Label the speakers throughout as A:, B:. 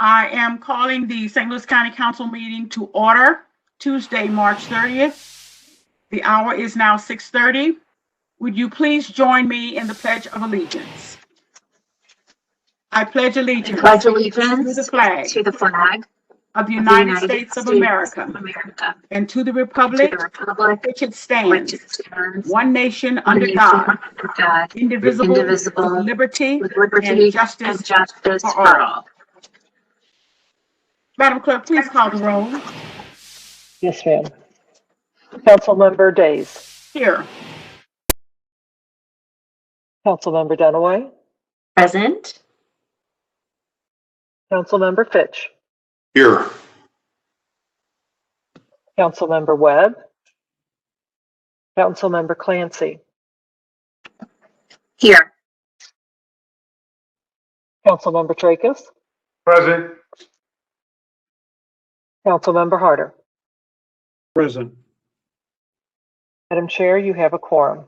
A: I am calling the St. Louis County Council meeting to order Tuesday, March 30th. The hour is now 6:30. Would you please join me in the Pledge of Allegiance? I pledge
B: I
A: allegiance
B: pledge
A: to
B: allegiance
A: the flag
B: to the
A: of
B: flag
A: the
B: of the
A: United States of America
B: America,
A: and to the
B: to
A: republic
B: the republic
A: which it
B: which
A: stands,
B: stands
A: one nation
B: one
A: under
B: nation
A: God,
B: under God,
A: indivisible, with
B: indivisible,
A: liberty
B: with
A: and
B: liberty and
A: justice.
B: justice
A: for
B: for
A: all.
B: all.
A: Madam Clerk, please call the roll.
C: Yes, ma'am. Councilmember Days.
A: Here.
C: Councilmember Dunaway.
B: Present.
C: Councilmember Fitch.
D: Here.
C: Councilmember Webb. Councilmember Clancy.
B: Here.
C: Councilmember Tracus.
D: Present.
C: Councilmember Harder.
E: Present.
C: Madam Chair, you have a quorum.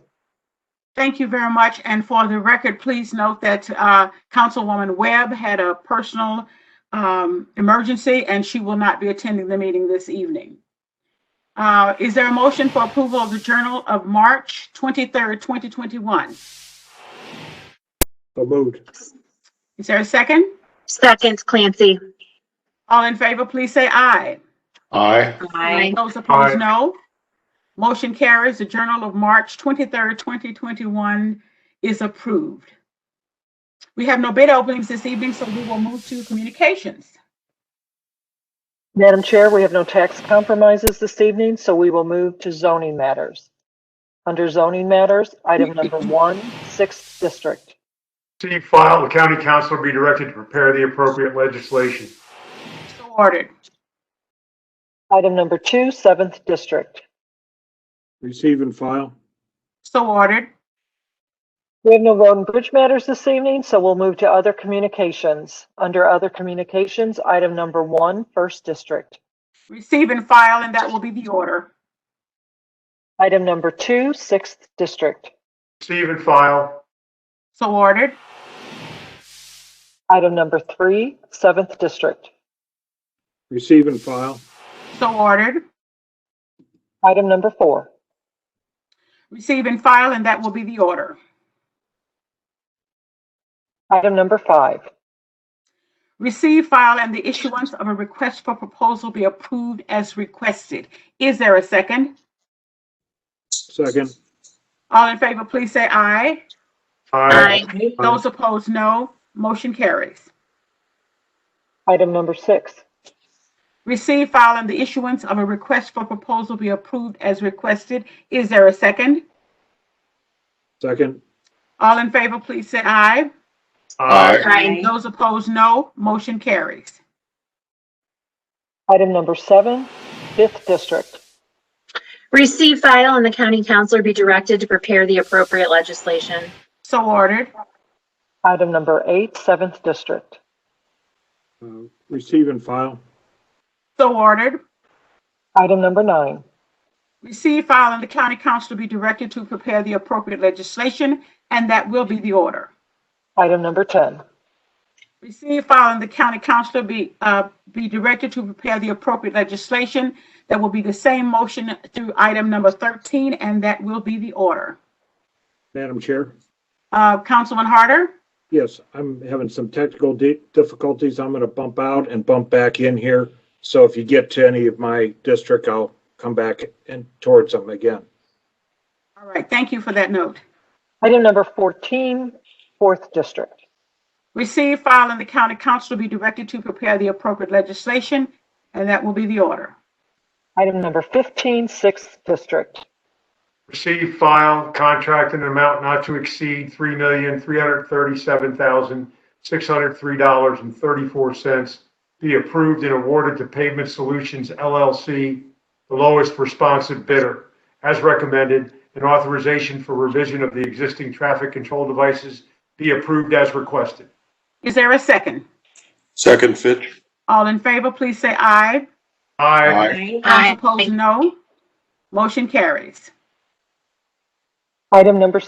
A: Thank you very much. And for the record, please note that uh, Councilwoman Webb had a personal um, emergency and she will not be attending the meeting this evening. Uh, Is there a motion for approval of the Journal of March 23rd, 2021?
E: So moved.
A: Is there a second?
B: Seconds Clancy.
A: All in favor, please say aye.
D: Aye.
B: Aye.
A: Those
D: Aye.
A: opposed, no. Motion carries. The Journal of March 23rd, 2021 is approved. We have no bid openings this evening, so we will move to communications.
C: Madam Chair, we have no tax compromises this evening, so we will move to zoning matters. Under zoning matters, item number one, sixth district.
D: See file, the county council be directed to prepare the appropriate legislation.
A: So ordered.
C: Item number two, seventh district.
E: Receive and file.
A: So ordered.
C: We have no road and bridge matters this evening, so we'll move to other communications. Under other communications, item number one, first district.
A: Receive and file, and that will be the order.
C: Item number two, sixth district.
D: Receive and file.
A: So ordered.
C: Item number three, seventh district.
E: Receive and file.
A: So ordered.
C: Item number four.
A: Receive and file, and that will be the order.
C: Item number five.
A: Receive, file, and the issuance of a request for proposal be approved as requested. Is there a second?
E: Second.
A: All in favor, please say aye.
B: Aye.
A: Those opposed, no. Motion carries.
C: Item number six.
A: Receive, file, and the issuance of a request for proposal be approved as requested. Is there a second?
E: Second.
A: All in favor, please say aye.
D: Aye.
B: Aye.
A: Those opposed, no. Motion carries.
C: Item number seven, fifth district.
B: Receive file and the county councilor be directed to prepare the appropriate legislation.
A: So ordered.
C: Item number eight, seventh district.
E: Uh, Receive and file.
A: So ordered.
C: Item number nine.
A: Receive, file, and the county council be directed to prepare the appropriate legislation, and that will be the order.
C: Item number 10.
A: Receive, file, and the county council be, uh, be directed to prepare the appropriate legislation. That will be the same motion through item number 13, and that will be the order.
E: Madam Chair?
A: Uh, Councilman Harder?
E: Yes, I'm having some technical di- difficulties. I'm going to bump out and bump back in here. So if you get to any of my district, I'll come back and towards them again.
A: All right, thank you for that note.
C: Item number 14, fourth district.
A: Receive, file, and the county council be directed to prepare the appropriate legislation, and that will be the order.
C: Item number 15, sixth district.
F: Receive, file, contract in an amount not to exceed three million, three hundred thirty-seven thousand, six hundred three dollars and thirty-four cents be approved and awarded to Pavement Solutions LLC, the lowest responsive bidder, as recommended, and authorization for revision of the existing traffic control devices be approved as requested.
A: Is there a second?
D: Second, Fitch.
A: All in favor, please say aye.
F: Aye.
A: Those opposed, no. Motion carries.
C: Item number